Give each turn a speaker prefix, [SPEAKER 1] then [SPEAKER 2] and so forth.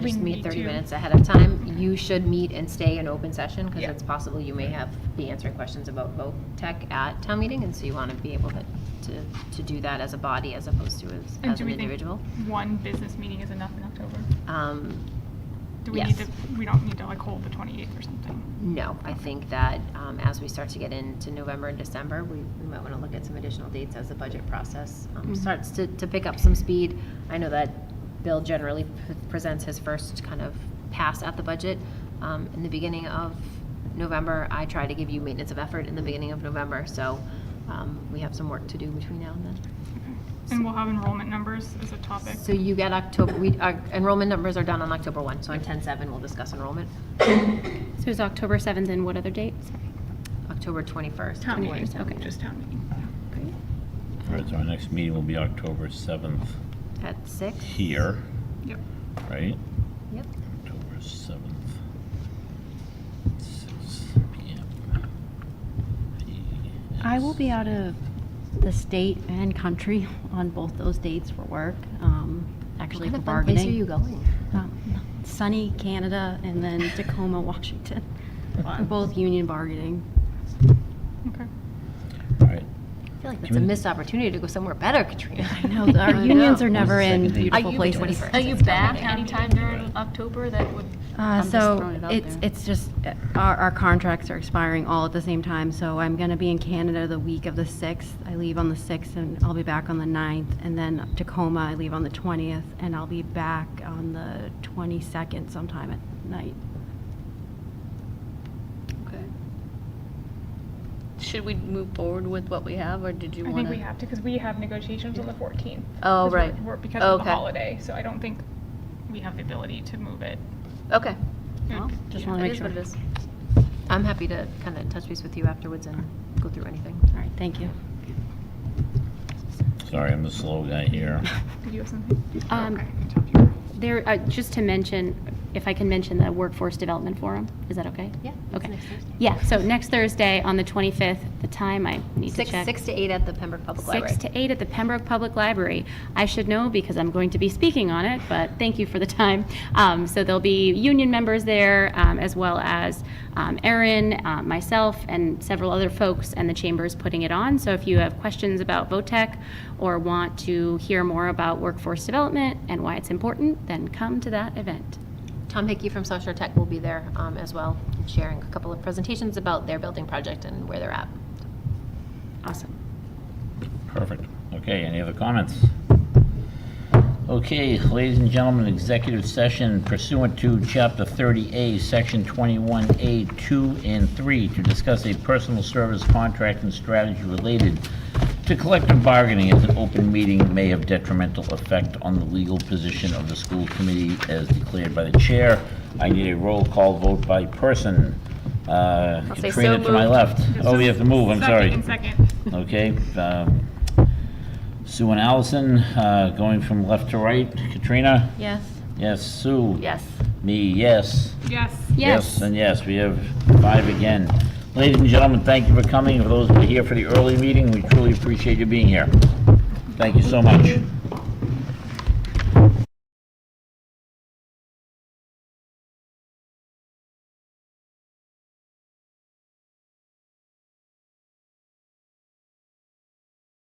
[SPEAKER 1] We
[SPEAKER 2] just meet
[SPEAKER 1] need
[SPEAKER 2] 30
[SPEAKER 1] to-
[SPEAKER 2] minutes ahead of time, you should meet and stay in open session because
[SPEAKER 1] Yeah.
[SPEAKER 2] it's possible you may have, be answering questions about vote tech at town meeting, and so you want to be able to, to, to do that as a body as opposed to as,
[SPEAKER 1] And
[SPEAKER 2] as
[SPEAKER 1] do
[SPEAKER 2] an
[SPEAKER 1] we think
[SPEAKER 2] individual.
[SPEAKER 1] One business meeting is enough in October?
[SPEAKER 2] Um,
[SPEAKER 1] Do we need
[SPEAKER 2] Yes.
[SPEAKER 1] to, we don't need to like hold the 28th or something?
[SPEAKER 2] No, I think that um, as we start to get into November and December, we we might want to look at some additional dates as the budget process um, starts to to pick up some speed. I know that Bill generally p- presents his first kind of pass at the budget um, in the beginning of November. I try to give you maintenance of effort in the beginning of November, so um, we have some work to do between now and then.
[SPEAKER 1] And we'll have enrollment numbers as a topic.
[SPEAKER 2] So you get October, we, our enrollment numbers are done on October 1, so on 10/7, we'll discuss enrollment.
[SPEAKER 3] So it's October 7th and what other date? Sorry.
[SPEAKER 2] October 21st.
[SPEAKER 1] Town meeting,
[SPEAKER 3] 21st, okay.
[SPEAKER 1] just town meeting.
[SPEAKER 4] All right, so our next meeting will be October 7th
[SPEAKER 2] At 6?
[SPEAKER 4] here,
[SPEAKER 1] Yep.
[SPEAKER 4] right?
[SPEAKER 2] Yep.
[SPEAKER 4] October 7th, 6 PM.
[SPEAKER 5] I will be out of the state and country on both those dates for work, um, actually
[SPEAKER 2] What
[SPEAKER 5] for
[SPEAKER 2] kind of fun place are you
[SPEAKER 5] bargaining.
[SPEAKER 2] going?
[SPEAKER 5] Um, Sunny Canada and then Tacoma, Washington, for both union bargaining.
[SPEAKER 1] Okay.
[SPEAKER 4] All right.
[SPEAKER 2] I feel like that's a
[SPEAKER 4] June-
[SPEAKER 2] missed opportunity to go somewhere better, Katrina.
[SPEAKER 5] I know, our unions are never in
[SPEAKER 4] Second date.
[SPEAKER 5] beautiful
[SPEAKER 2] you-
[SPEAKER 5] places.
[SPEAKER 2] 21st.
[SPEAKER 6] Are you back anytime during October that would?
[SPEAKER 5] Uh,
[SPEAKER 6] I'm just
[SPEAKER 5] So
[SPEAKER 6] throwing it out
[SPEAKER 5] it's,
[SPEAKER 6] there.
[SPEAKER 5] it's just, uh, our, our contracts are expiring all at the same time, so I'm going to be in Canada the week of the 6th. I leave on the 6th and I'll be back on the 9th, and then Tacoma, I leave on the 20th, and I'll be back on the 22nd sometime at night.
[SPEAKER 6] Should we move forward with what we have, or did you
[SPEAKER 1] I
[SPEAKER 6] want to?
[SPEAKER 1] think we have to, because we have negotiations on the 14th.
[SPEAKER 6] Oh,
[SPEAKER 1] 'cause we're-
[SPEAKER 6] right.
[SPEAKER 1] we're- Because of the
[SPEAKER 6] Okay.
[SPEAKER 1] holiday, so I don't think we have the ability to move it.
[SPEAKER 6] Okay.
[SPEAKER 5] Just
[SPEAKER 1] Yeah.
[SPEAKER 5] want to
[SPEAKER 6] It
[SPEAKER 5] make
[SPEAKER 6] is
[SPEAKER 5] sure.
[SPEAKER 6] what it is.
[SPEAKER 2] I'm happy to kind of touch base with you afterwards and go through anything.
[SPEAKER 5] All right, thank you.
[SPEAKER 4] Sorry, I'm the slow guy here.
[SPEAKER 1] Did you have something?
[SPEAKER 3] Um,
[SPEAKER 1] Okay.
[SPEAKER 3] There, uh, just to mention, if I can mention the Workforce Development Forum, is that okay?
[SPEAKER 2] Yeah, it's
[SPEAKER 3] Okay.
[SPEAKER 2] next Thursday.
[SPEAKER 3] Yeah, so next Thursday on the 25th, the time I need to
[SPEAKER 2] Six,
[SPEAKER 3] check.
[SPEAKER 2] six to eight at the Pembroke Public Library.
[SPEAKER 3] Six to eight at the Pembroke Public Library. I should know because I'm going to be speaking on it, but thank you for the time. Um, So there'll be union members there, um, as well as um, Erin, uh, myself, and several other folks, and the chamber's putting it on. So if you have questions about VOTEC or want to hear more about workforce development and why it's important, then come to that event.
[SPEAKER 2] Tom Hickey from South Shore Tech will be there um, as well, sharing a couple of presentations about their building project and where they're at.
[SPEAKER 3] Awesome.
[SPEAKER 4] Perfect. Okay, any other comments? Okay, ladies and gentlemen, executive session pursuant to Chapter 30A, Section 21A, 2 and 3, to discuss a personal service contract and strategy related to collective bargaining as an open meeting may have detrimental effect on the legal position of the school committee as declared by the chair. I need a roll call vote by person. Uh,
[SPEAKER 2] say so
[SPEAKER 4] Katrina to my
[SPEAKER 2] moved.
[SPEAKER 4] left. Oh, we have to move, I'm sorry.
[SPEAKER 1] Second, second.
[SPEAKER 4] Okay, um, Sue and Allison, uh, going from left to right. Katrina?
[SPEAKER 2] Yes.
[SPEAKER 4] Yes, Sue?
[SPEAKER 2] Yes.
[SPEAKER 4] Me, yes.
[SPEAKER 1] Yes.
[SPEAKER 3] Yes.
[SPEAKER 4] And yes, we have five again. Ladies and gentlemen, thank you for coming. For those who are here for the early meeting, we truly appreciate you being here. Thank you so much.